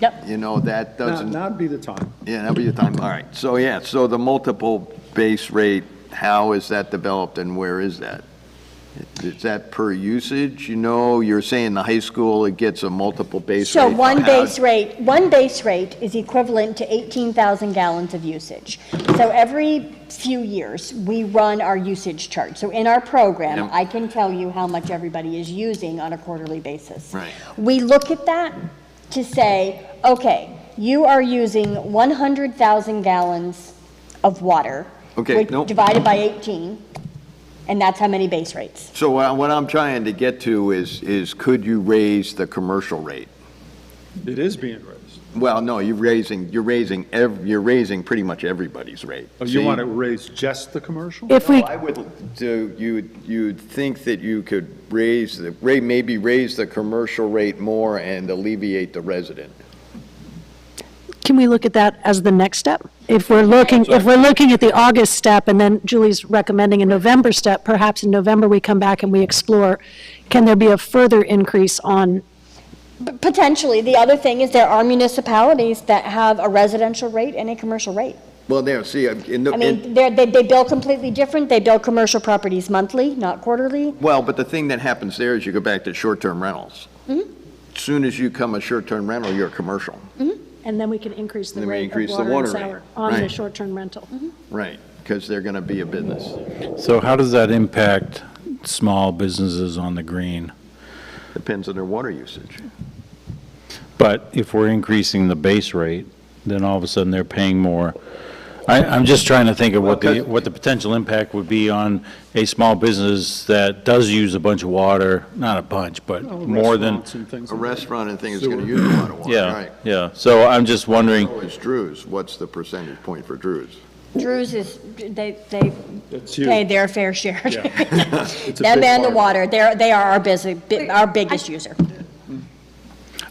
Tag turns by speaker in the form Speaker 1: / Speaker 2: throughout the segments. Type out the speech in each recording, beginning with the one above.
Speaker 1: Yep.
Speaker 2: You know, that
Speaker 3: Now-
Speaker 2: doesn't,
Speaker 3: Now'd be the time.
Speaker 2: yeah, that'll be the time, all right. So, yeah, so the multiple base rate, how is that developed and where is that? Is that per usage? You know, you're saying the high school, it gets a multiple base rate.
Speaker 1: So one
Speaker 2: How-
Speaker 1: base rate, one base rate is equivalent to 18,000 gallons of usage. So every few years, we run our usage chart. So in our program,
Speaker 2: Yep.
Speaker 1: I can tell you how much everybody is using on a quarterly basis.
Speaker 2: Right.
Speaker 1: We look at that to say, okay, you are using 100,000 gallons of water.
Speaker 2: Okay,
Speaker 1: which-
Speaker 2: nope.
Speaker 1: Divided by 18, and that's how many base rates.
Speaker 2: So what I- what I'm trying to get to is, is could you raise the commercial rate?
Speaker 3: It is being raised.
Speaker 2: Well, no, you're raising, you're raising, ev- you're raising pretty much everybody's rate.
Speaker 3: Oh, you
Speaker 2: See?
Speaker 3: want to raise just the commercial?
Speaker 4: If we,
Speaker 2: I would, so you, would- you would think that you could raise the, rate, maybe raise the commercial rate more and alleviate the resident.
Speaker 4: can we look at that as the next step? If we're looking, if we're looking at the August step, and then Julie's recommending a November step, perhaps in November, we come back and we explore, can there be a further increase on,
Speaker 1: P- Potentially. The other thing is there are municipalities that have a residential rate and a commercial rate.
Speaker 2: Well, there, see, uh, in the,
Speaker 1: I
Speaker 2: in-
Speaker 1: mean, they're, they, they bill completely different. They bill commercial properties monthly, not quarterly.
Speaker 2: well, but the thing that happens there is you go back to short-term rentals.
Speaker 1: Hmm?
Speaker 2: Soon as you come a short-term rental, you're a commercial.
Speaker 4: and then we can increase the
Speaker 2: Then we
Speaker 4: rate
Speaker 2: increase the
Speaker 4: of water
Speaker 2: water
Speaker 4: and sewer
Speaker 2: rate,
Speaker 4: on the
Speaker 2: right.
Speaker 4: short-term rental?
Speaker 2: Right, because they're going to be a business,
Speaker 5: So how does that impact small businesses on the green?
Speaker 2: depends on their water usage.
Speaker 5: But if we're increasing the base rate, then all of a sudden they're paying more. I, I'm just trying to think of what the, what the potential impact would be on a small business that does use a bunch of water, not a bunch, but
Speaker 3: Oh,
Speaker 5: more than,
Speaker 3: restaurants and things
Speaker 2: A
Speaker 3: like that.
Speaker 2: restaurant and thing is going to use a lot of water,
Speaker 5: yeah,
Speaker 2: right?
Speaker 5: yeah. So I'm just wondering,
Speaker 2: So is Drews, what's the percentage point for Drews?
Speaker 1: Drews is, they, they
Speaker 3: It's huge.
Speaker 1: pay their fair share.
Speaker 3: It's a
Speaker 1: Them
Speaker 3: big
Speaker 1: and the
Speaker 3: part.
Speaker 1: water, they're, they are our busy, bi- our biggest user.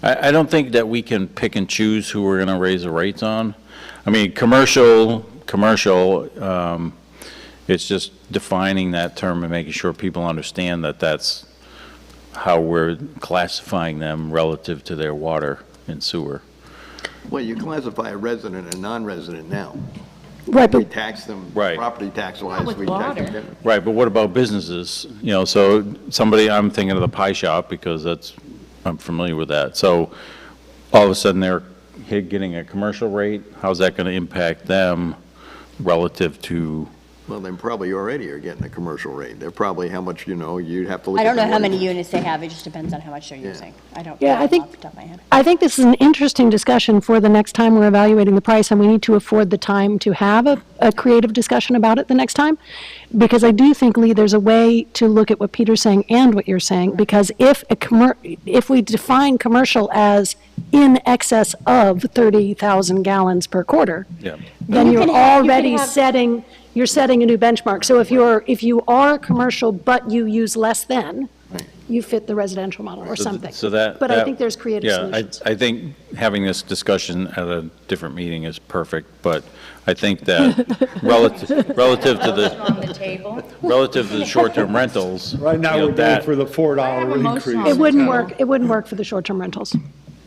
Speaker 5: I, I don't think that we can pick and choose who we're gonna raise the rates on. I mean, commercial, commercial, um, it's just defining that term and making sure people understand that that's how we're classifying them relative to their water and sewer.
Speaker 2: Well, you classify a resident and non-resident now.
Speaker 4: Right,
Speaker 2: We
Speaker 4: but
Speaker 2: tax them,
Speaker 5: Right.
Speaker 2: property tax-wise,
Speaker 6: with
Speaker 2: we tax them.
Speaker 6: water.
Speaker 2: different.
Speaker 5: Right, but what about businesses? You know, so somebody, I'm thinking of the pie shop because that's, I'm familiar with that. So all of a sudden they're hit- getting a commercial rate. How's that gonna impact them relative to?
Speaker 2: Well, then probably already are getting a commercial rate. They're probably how much, you know, you'd have to look
Speaker 1: I
Speaker 2: at.
Speaker 1: don't know
Speaker 2: the
Speaker 1: how many
Speaker 2: wording.
Speaker 1: units they have. It just depends on how much they're using. I don't
Speaker 4: Yeah, I
Speaker 1: know off the
Speaker 4: think-
Speaker 1: top of my head.
Speaker 4: I think this is an interesting discussion for the next time we're evaluating the price, and we need to afford the time to have a, a creative discussion about it the next time. Because I do think, Lee, there's a way to look at what Peter's saying and what you're saying, because if a commer, if we define commercial as in excess of 30,000 gallons per quarter, then
Speaker 1: You
Speaker 4: you're
Speaker 1: can have- you can
Speaker 4: already
Speaker 1: have-
Speaker 4: setting, you're setting a new benchmark. So if you're, if you are commercial, but you use less than, you fit the residential model or
Speaker 5: So th-
Speaker 4: something.
Speaker 5: So that.
Speaker 4: But I
Speaker 5: that-
Speaker 4: think there's creative solutions.
Speaker 5: Yeah, I, I think having this discussion at a different meeting is perfect, but I think that relative, relative to the,
Speaker 6: on the table.
Speaker 5: relative to the short-term rentals.
Speaker 3: Right now,
Speaker 5: you know,
Speaker 3: we're going
Speaker 5: that-
Speaker 3: for the
Speaker 6: I
Speaker 3: $4
Speaker 6: have a motion on
Speaker 3: increase.
Speaker 6: the
Speaker 4: It wouldn't work, it wouldn't work for the short-term rentals.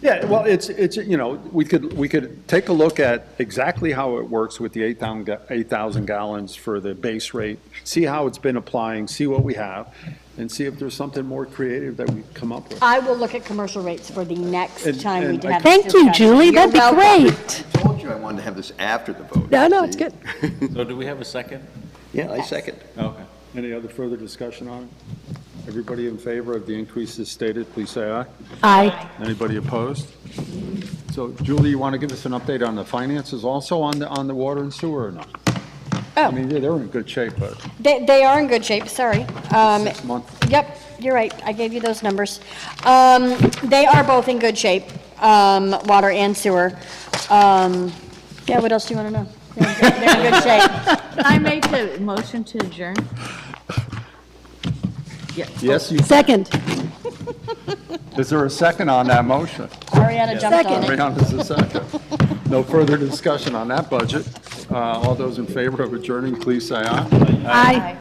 Speaker 3: Yeah, well, it's, it's, you know, we could, we could take a look at exactly how it works with the 8,000 ga- 8,000 gallons for the base rate, see how it's been applying, see what we have, and see if there's something more creative that we come up with.
Speaker 1: I will look at commercial rates for the next
Speaker 3: And-
Speaker 1: time we
Speaker 3: and I-
Speaker 1: have this
Speaker 4: Thank you,
Speaker 1: discussion.
Speaker 4: Julie,
Speaker 1: You're
Speaker 4: that'd be
Speaker 1: welcome.
Speaker 4: great.
Speaker 2: I told you I wanted to have this after the vote.
Speaker 4: No, no, it's
Speaker 2: see?
Speaker 4: good.
Speaker 5: So do we have a second?
Speaker 2: Yeah, I second.
Speaker 5: Okay.
Speaker 3: Any other further discussion on it? Everybody in favor of the increases stated, please say aye.
Speaker 4: Aye.
Speaker 3: Anybody opposed? So Julie, you want to give us an update on the finances also on the, on the water and sewer or not? I mean, they're in good shape, but
Speaker 1: They, they are in good shape, sorry. Um,
Speaker 3: six months.
Speaker 1: Yep, you're right, I gave you those numbers. Um, They are both in good shape, um, water and sewer. Um, Yeah, what else do you want to know? They're in good- they're in good shape.
Speaker 6: I make the motion to adjourn.
Speaker 3: Yes, you,
Speaker 4: Second,
Speaker 3: is there a second on that motion?
Speaker 1: Ariana jumped on it.
Speaker 3: Brianna's the second. No further discussion on that budget. Uh, All those in favor of adjourning, please say aye.
Speaker 4: aye.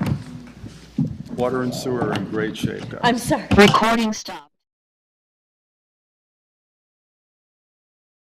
Speaker 3: Water and sewer are in great shape, guys.
Speaker 1: I'm sorry.
Speaker 7: Recording stopped.